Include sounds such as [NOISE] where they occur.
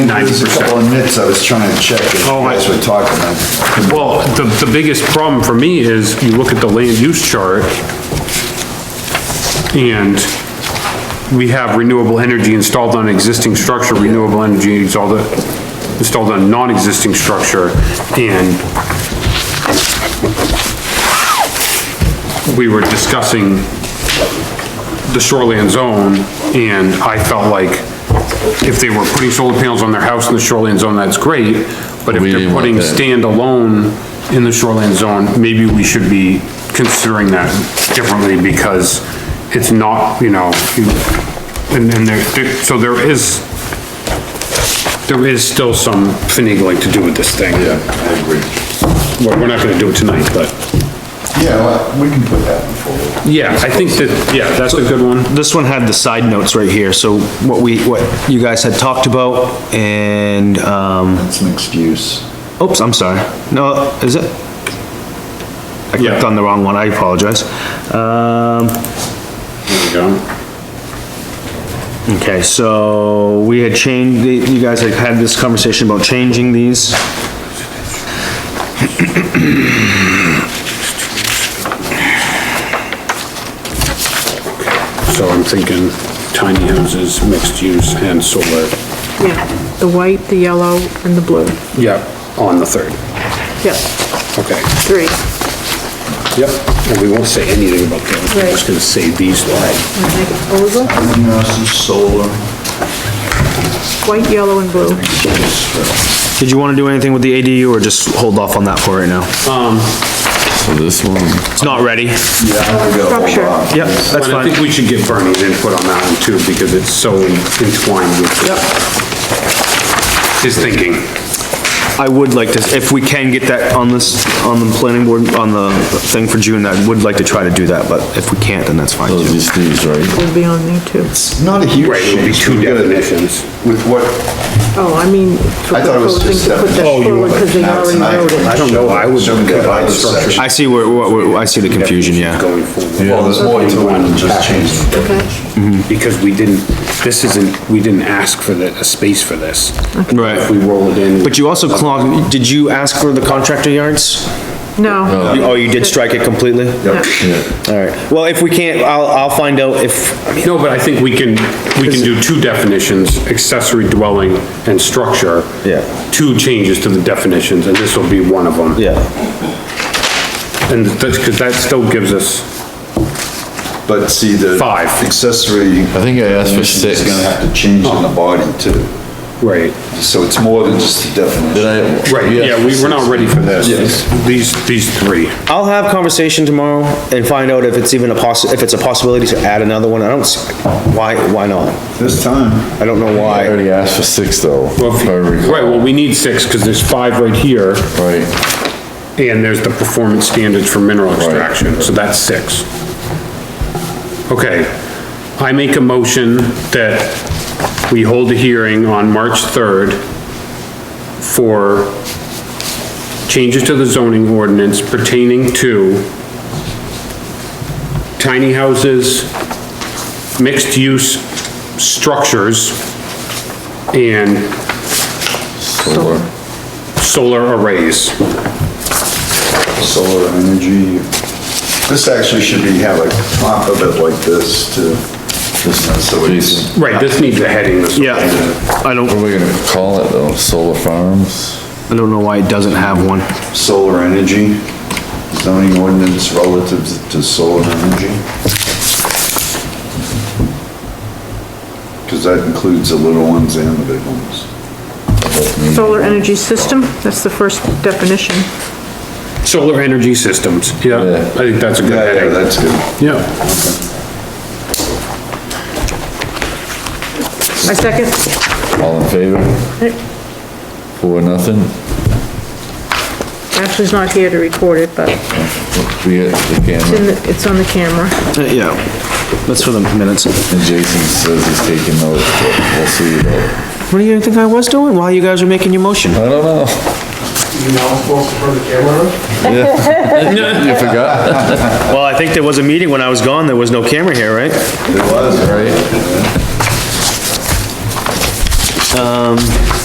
There's a couple 90%. of nits I was trying to check as you Oh, I- guys were talking about. Well, the, the biggest problem for me is you look at the land use chart and we have renewable energy installed on existing structure, renewable energy installed, installed on non-existing structure and we were discussing the shoreland zone, and I felt like if they were putting solar panels on their house in the shoreland zone, that's great, but if We they're didn't want putting that. standalone in the shoreland zone, maybe we should be considering that differently, because it's not, you know, you- and, and there, there- so there is, there is still some finagling to do with this thing. Yeah, I agree. We're, we're not gonna do it tonight, but, Yeah, well, we can put that one forward. yeah, I think that, yeah, that's a good one. This one had the side notes right here, so what we, what you guys had talked about and, um, That's an excuse. oops, I'm sorry. No, is it? I clicked Yeah. on the wrong one, I apologize. Um, There we go. okay, so we had changed, the- you guys had had this conversation about changing these. So I'm thinking tiny houses, mixed use, and solar. Yeah, the white, the yellow, and the blue. Yep. On the third. Yep, Okay. three. Yep. And we won't say anything about those. We're just gonna say these lines. Wanna Make it over, Greenhouses, solar. white, yellow, and blue. Did you wanna do anything with the ADU or just hold off on that for right now? Um, So this one, It's not ready. Yeah, we gotta hold Structure. on. Yep, that's But I fine. think we should get Bernie's input on that one too, because it's so entwined with. His thinking. I would like to, if we can get that on this, on the planning board, on the thing for June, I would like to try to do that, but if we can't, then that's fine those too. are these, right? Will be on there too. It's not a huge Right, it would be change. two We gotta- definitions. With what, Oh, I mean, for I thought it was proposing just to put that definition. Oh, you forward were- because they now it's already not. wrote it. I don't know, I would Some combine guide structure. I see where, what- what- I see the confusion, yeah. Going forward. Well, there's more to it than just changing. Okay, Because we didn't, this isn't, we didn't ask for the, a space for this. If we Right. roll it in. But you also, clog- did you ask for the contractor yards? no, You- Oh, you did strike it completely? Yep. All right. Well, if we can't, I'll, I'll find out if, No, but I think we can, we can do two definitions, accessory dwelling and structure. Yeah. Two changes to the definitions, and this will be one of them. yeah, And that's, because that still gives us, But see, the. Five. Accessory. I think I asked for six. It's gonna have to change in the body too. right, So it's more than just the definition. Did I? right, yeah, we, we're not ready for this. Yes. These, these three. I'll have conversation tomorrow and find out if it's even a possi, if it's a possibility to add another one. I don't, s- why, why not? This time, I don't know I why. already asked for six though, Well, if if- I recall. Right, well, we need six, because there's five right here, Right, and there's the performance standards for mineral extraction, so that's six. Okay, I make a motion that we hold a hearing on March 3rd for changes to the zoning ordinance pertaining to tiny houses, mixed-use structures, and solar. solar arrays. solar energy. This actually should be, have a top of it like this too. This is so it's. Right, this needs a heading. this one. Yeah, I What are don't, we gonna call it though? Solar farms? I don't know why it doesn't have one. Solar energy, zoning ordinance relative to solar energy. Because that includes the little ones and the big ones. solar energy system, that's the first definition. Solar energy systems, yeah, Yeah. I think that's a good Yeah, yeah, heading. that's good. Yeah, My second, All in favor? Four, nothing? Ashley's not here to record it, but it's We get the in, camera. the- it's on the camera. Uh, Yeah, that's for the minutes. What And Jason says he's taking notes, but we'll see though. do you think I was doing while you guys were making your motion? I don't know. You know, folks from the camera, [LAUGHS] You forgot? Well, I think there was a meeting when I was gone, there was no camera here, right? It was, right? Right?